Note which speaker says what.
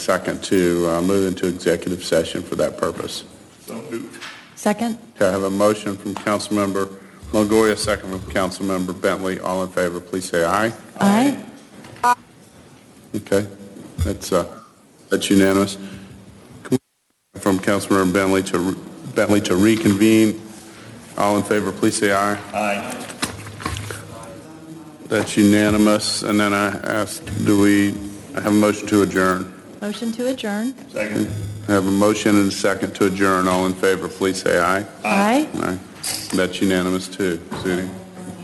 Speaker 1: Second to uh, move into executive session for that purpose.
Speaker 2: Second?
Speaker 1: Okay, I have a motion from Councilmember Longoria, second from Councilmember Bentley. All in favor, please say aye.
Speaker 2: Aye.
Speaker 1: Okay, that's, uh, that's unanimous. Can we- From Councilmember Bentley to, re- Bentley to reconvene. All in favor, please say aye. Aye. That's unanimous. And then I ask, do we, I have a motion to adjourn.
Speaker 2: Motion to adjourn?
Speaker 1: I have a motion and a second to adjourn. All in favor, please say aye.
Speaker 2: Aye.
Speaker 1: Aye. That's unanimous too, Sudie.